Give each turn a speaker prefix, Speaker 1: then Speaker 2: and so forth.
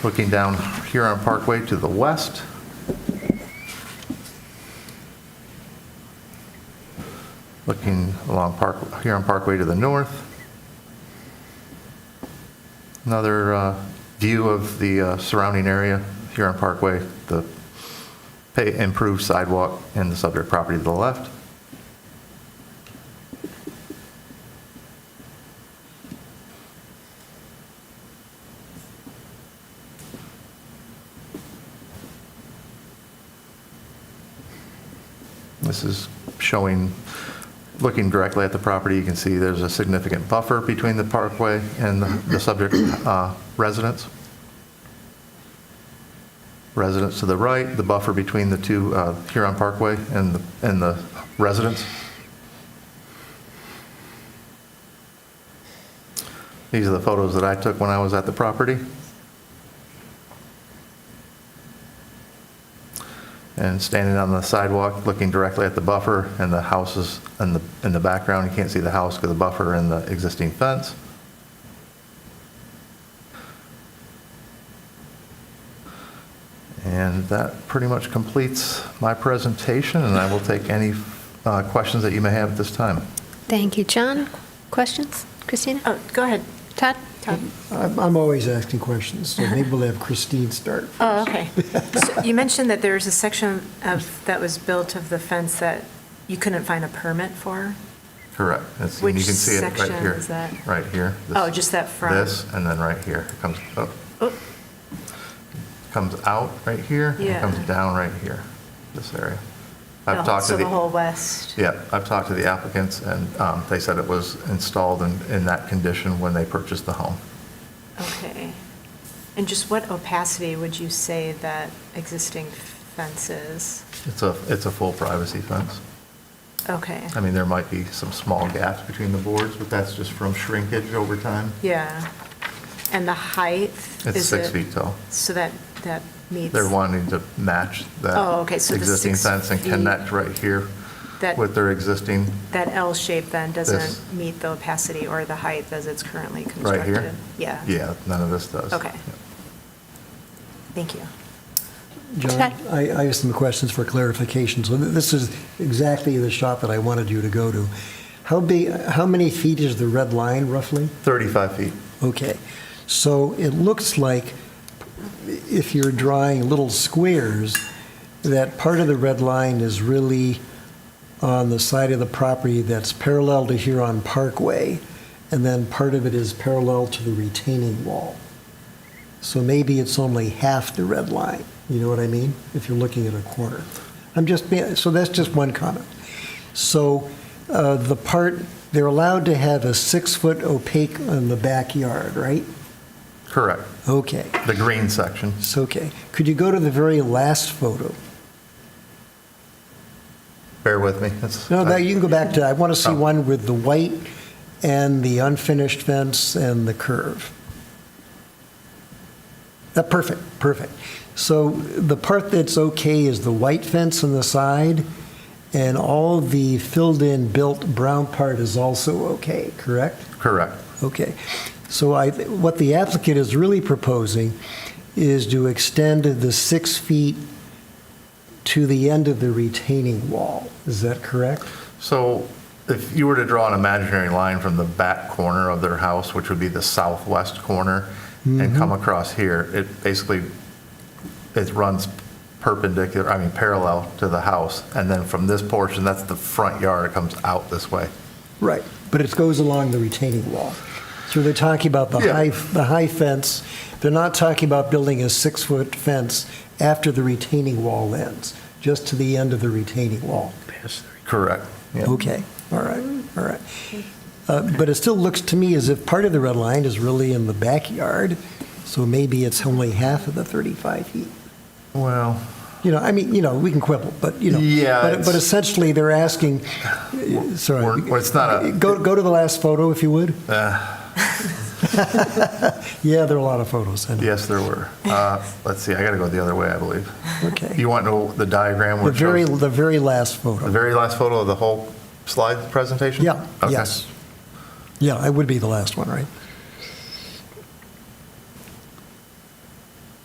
Speaker 1: looking down here on Parkway to the west. Looking along Park, here on Parkway to the north. Another uh, view of the uh, surrounding area here on Parkway, the pa- improved sidewalk and the subject property to the left. This is showing, looking directly at the property, you can see there's a significant buffer between the parkway and the the subject uh, residence. Residence to the right, the buffer between the two uh, Huron Parkway and, the and the residence. These are the photos that I took when I was at the property. and standing on the sidewalk, looking directly at the buffer and the houses in the, in the background. You can't see the house because the buffer and the existing fence. And that pretty much completes my presentation, and I will take any uh, questions that you may have at this time.
Speaker 2: Thank you, John. Questions? Christina?
Speaker 3: Oh, go ahead,
Speaker 2: Todd?
Speaker 3: Todd.
Speaker 4: I'm I'm always asking questions, so maybe we'll have Christine start.
Speaker 3: Oh, okay. So You mentioned that there was a section of, that was built of the fence that you couldn't find a permit for?
Speaker 1: Correct. That's- and you
Speaker 3: Which
Speaker 1: can see it right
Speaker 3: section
Speaker 1: here.
Speaker 3: is that?
Speaker 1: Right here. This-
Speaker 3: Oh, just that front?
Speaker 1: This, and then right here. It comes up.
Speaker 3: Oh.
Speaker 1: Comes out right here. and
Speaker 3: Yeah.
Speaker 1: Comes down right here, this area.
Speaker 3: No,
Speaker 1: I've talked to
Speaker 3: So the whole
Speaker 1: the,
Speaker 3: west?
Speaker 1: yeah, I've talked to the applicants, and um, they said it was installed in, in that condition when they purchased the home.
Speaker 3: Okay. And just what opacity would you say that existing fence is?
Speaker 1: It's a, it's a full privacy fence.
Speaker 3: Okay.
Speaker 1: I mean, there might be some small gaps between the boards, but that's just from shrinkage over time.
Speaker 3: Yeah. And the height?
Speaker 1: It's
Speaker 3: is
Speaker 1: six
Speaker 3: it-
Speaker 1: feet tall.
Speaker 3: So that, that meets?
Speaker 1: They're wanting to match that.
Speaker 3: Oh, okay, so the
Speaker 1: Existing
Speaker 3: six
Speaker 1: fence and
Speaker 3: feet-
Speaker 1: connect right here
Speaker 3: That-
Speaker 1: with their existing,
Speaker 3: That L shape then
Speaker 1: This.
Speaker 3: doesn't meet the opacity or the height as it's currently constructed?
Speaker 1: right here.
Speaker 3: Yeah.
Speaker 1: Yeah, none of this does.
Speaker 3: Okay.
Speaker 1: Yeah.
Speaker 3: Thank you.
Speaker 4: John, I I have some questions for clarification. So th- this is exactly the shot that I wanted you to go to. How big, how many feet is the red line roughly?
Speaker 1: 35 feet.
Speaker 4: Okay, so it looks like if you're drawing little squares, that part of the red line is really on the side of the property that's parallel to Huron Parkway, and then part of it is parallel to the retaining wall. So maybe it's only half the red line, you know what I mean? If you're looking at a corner. I'm just, so that's just one comment. So uh, the part, they're allowed to have a six-foot opaque in the backyard, right?
Speaker 1: Correct.
Speaker 4: Okay,
Speaker 1: The green section.
Speaker 4: it's okay. Could you go to the very last photo?
Speaker 1: Bear with me. It's-
Speaker 4: No, that, you can go back to, I want to see
Speaker 1: Oh.
Speaker 4: one with the white and the unfinished fence and the curve. That, perfect, perfect. So the part that's okay is the white fence on the side, and all the filled-in built brown part is also okay, correct?
Speaker 1: Correct.
Speaker 4: Okay. So I, what the applicant is really proposing is to extend the six feet to the end of the retaining wall. Is that correct?
Speaker 1: So if you were to draw an imaginary line from the back corner of their house, which would be the southwest corner,
Speaker 4: Mm-hmm.
Speaker 1: and come across here, it basically, it runs perpendicular, I mean, parallel to the house. And then from this portion, that's the front yard, it comes out this way.
Speaker 4: Right. But it goes along the retaining wall. So they're talking about the
Speaker 1: Yeah.
Speaker 4: high, the high fence. They're not talking about building a six-foot fence after the retaining wall ends, just to the end of the retaining wall.
Speaker 1: Correct. Yeah.
Speaker 4: Okay, all right, all right. Uh, But it still looks to me as if part of the red line is really in the backyard, so maybe it's only half of the 35 feet.
Speaker 1: Well,
Speaker 4: You know, I mean, you know, we can quibble, but, you know.
Speaker 1: Yeah,
Speaker 4: but-
Speaker 1: it's-
Speaker 4: But essentially, they're asking, sorry.
Speaker 1: We're- well, it's not a-
Speaker 4: Go, go to the last photo, if you would.
Speaker 1: uh,
Speaker 4: Yeah, there are a lot of photos, I know.
Speaker 1: yes, there were. Uh, Let's see, I got to go the other way, I believe.
Speaker 4: Okay.
Speaker 1: You want to know the diagram?
Speaker 4: The
Speaker 1: where it
Speaker 4: very,
Speaker 1: shows-
Speaker 4: the very last
Speaker 1: The
Speaker 4: photo.
Speaker 1: very last photo of the whole slide presentation?
Speaker 4: Yeah,
Speaker 1: Okay.
Speaker 4: yes. Yeah, it would be the last one, right?